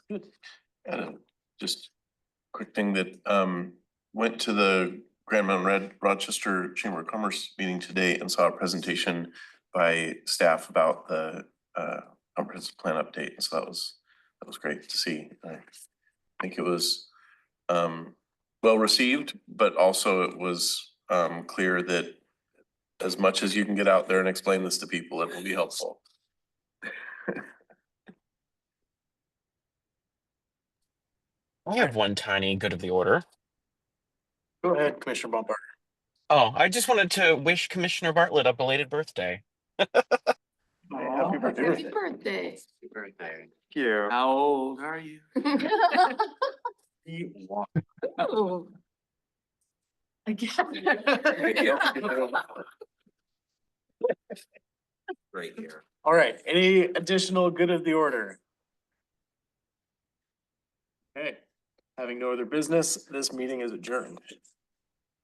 And uh, just quick thing that um went to the Grand Mountain Red Rochester Chamber of Commerce meeting today and saw a presentation by staff about the uh comprehensive plan update. So that was, that was great to see. I think it was um well received, but also it was um clear that as much as you can get out there and explain this to people, it will be helpful. I have one tiny good of the order. Go ahead, Commissioner Bumper. Oh, I just wanted to wish Commissioner Bartlett a belated birthday. Happy Happy birthday. birthday. Birthday. Thank you. How old are you? Oh. Again. Right here. All right, any additional good of the order? Okay, having no other business, this meeting is adjourned.